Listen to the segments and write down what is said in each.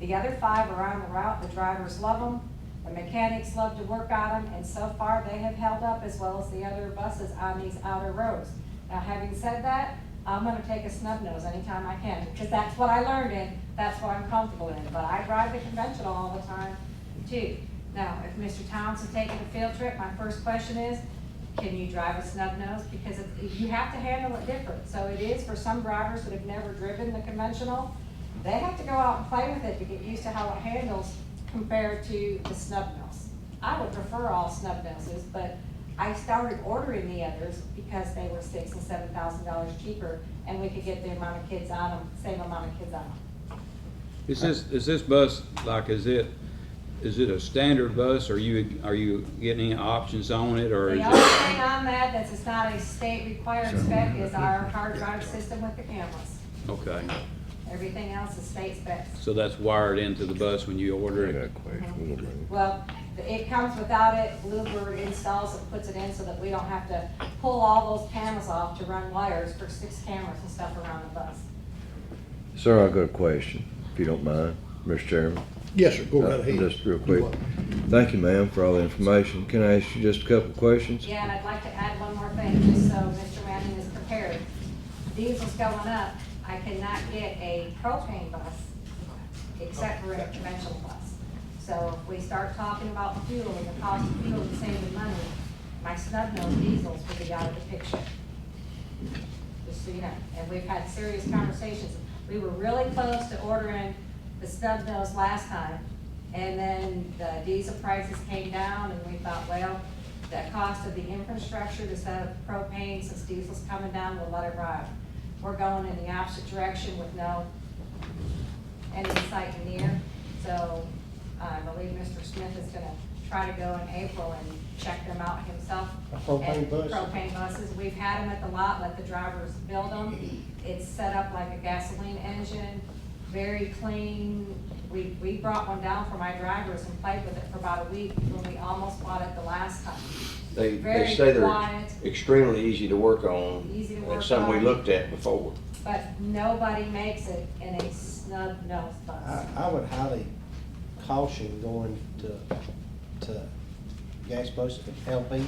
The other five are on the route, the drivers love them, the mechanics love to work on them, and so far they have held up as well as the other buses on these outer roads. Now, having said that, I'm gonna take a snub nose anytime I can, because that's what I learned in, that's what I'm comfortable in, but I drive the conventional all the time too. Now, if Mr. Thompson taking a field trip, my first question is, can you drive a snub nose? Because it- you have to handle it different, so it is for some drivers that have never driven the conventional, they have to go out and play with it to get used to how it handles compared to the snub nose. I would prefer all snub noses, but I started ordering the others because they were six and seven thousand dollars cheaper, and we could get the amount of kids on them, same amount of kids on them. Is this, is this bus, like, is it, is it a standard bus, or you, are you getting any options on it, or is The it? only thing on that that's it's not a state required spec is our hard drive system with the cameras. Okay, Everything else is state specs. so that's wired into the bus when you order it? Uh-huh. Well, it comes without it, Bluebird installs it, puts it in so that we don't have to pull all those panels off to run wires for six cameras and stuff around the bus. Sir, I've got a question, if you don't mind, Mr. Chairman. Yes, sir, go Uh, right ahead. Just real quick. Thank you, ma'am, for all the information. Can I ask you just a couple of questions? Yeah, and I'd like to add one more thing, just so Mr. Manning is prepared. Diesel's going up, I cannot get a propane bus except for a conventional bus. So if we start talking about fuel and the cost of fuel and saving money, my snub-nosed diesels will be out of the picture. Just so you know, and we've had serious conversations. We were really close to ordering the snub nose last time, and then the diesel prices came down, and we thought, well, the cost of the infrastructure to set up propane, since diesel's coming down, we'll let it ride. We're going in the opposite direction with no end in sight and near, so uh, I believe Mr. Smith is gonna try to go in April and check them out himself. A propane And bus? propane propane buses, we've had them at the lot, let the drivers build them. It's set up like a gasoline engine, very clean. We, we brought one down for my drivers and played with it for about a week when we almost bought it the last time. They, Very they say they're quiet. extremely easy to work on. Easy to work That's something we on. looked at before. But nobody makes it in a snub nose bus. I, I would highly caution going to, to gas buses and LP.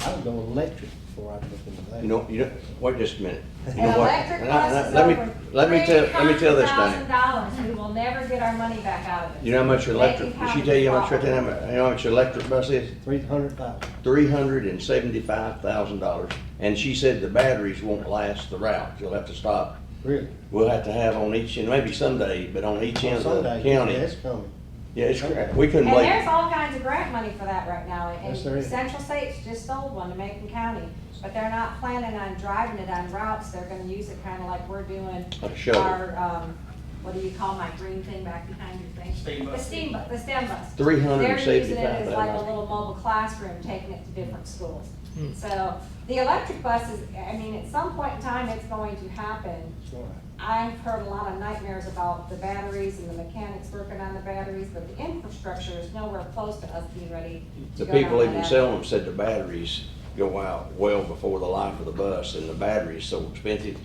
I would go electric before I'd look into that. You know, you know, wait just a minute. You An know what? electric And I- and I- bus is let me- over Let me tell, let me tell this $300,000. thing. We will never get our money back out of it. You know how much They electric, can did she count tell you how the much, right there, how problem. much- you know how much electric bus is? Three hundred thousand. Three hundred and seventy-five thousand dollars. And she said the batteries won't last the route. You'll have to stop. Really? We'll have to have on each end, maybe someday, but on each end of the Someday, county. That's coming. Yeah, it's crap. We couldn't And there's wait. all kinds of grant money for that right now, and Yes, there is. Central States just sold one to Macon County, but they're not planning on driving it on routes, they're gonna use it kinda like we're doing Like a shuttle. our, um, what do you call my green thing back behind your thing? Steam bus. The steam bu, the STEM bus. They're using it as like a 375,000. little mobile classroom, taking it to different schools. So, the electric bus is, I mean, at some point in time, it's going to happen, It's all right. I've heard a lot of nightmares about the batteries and the mechanics working on the batteries, but the infrastructure is nowhere close to us being ready to The go down people even that selling avenue. them said the batteries go out well before the life of the bus, and the battery is so expensive.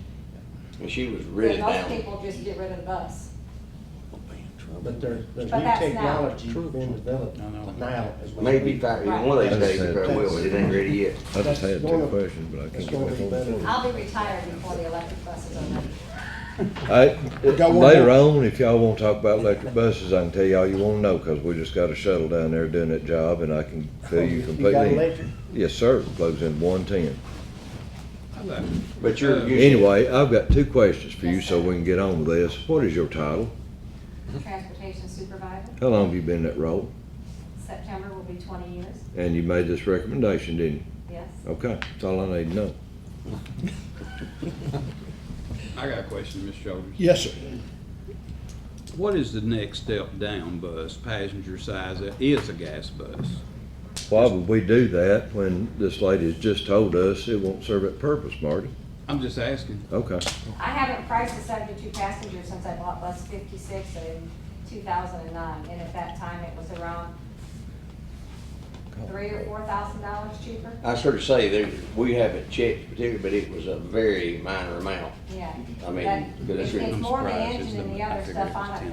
And she was really But down. Most people just get rid of the bus. But there's, there's But new that's now. technology being developed I know. now. as we Maybe, speak. in fact, one of these Right. days, it probably will, but it ain't ready yet. I just had That's two gonna- questions, but I that's can't get gonna back be on the better. phone. I'll be retired before the electric buses are ready. I- Got one Later more? on, if y'all wanna talk about electric buses, I can tell y'all you wanna know, 'cause we just got a shuttle down there doing that job, and I can fill you You got completely. electric? Yes, sir, plugs in one-ten. But uh, you're. you- Anyway, I've got two questions for you, so we can get on with this. What is your title? Transportation supervisor, How long have you been in that role? September will be twenty years, And you made this recommendation, didn't you? yes. Okay, that's all I need to know. I got a question, Ms. Shoulders. Yes, sir. What is the next step down bus, passenger size, that is a gas bus? Why would we do that when this lady has just told us it won't serve its purpose, Marty? I'm just asking. Okay. I haven't priced a seventy-two passenger since I bought bus fifty-six in two thousand and nine, and at that time, it was around three or four thousand dollars cheaper, I sort of say, there, we haven't checked particularly, but it was a very minor amount. yeah. I mean, But because that's it's- really- It's more the I'm surprised engine it's and the- the I other figured it stuff was on it 10.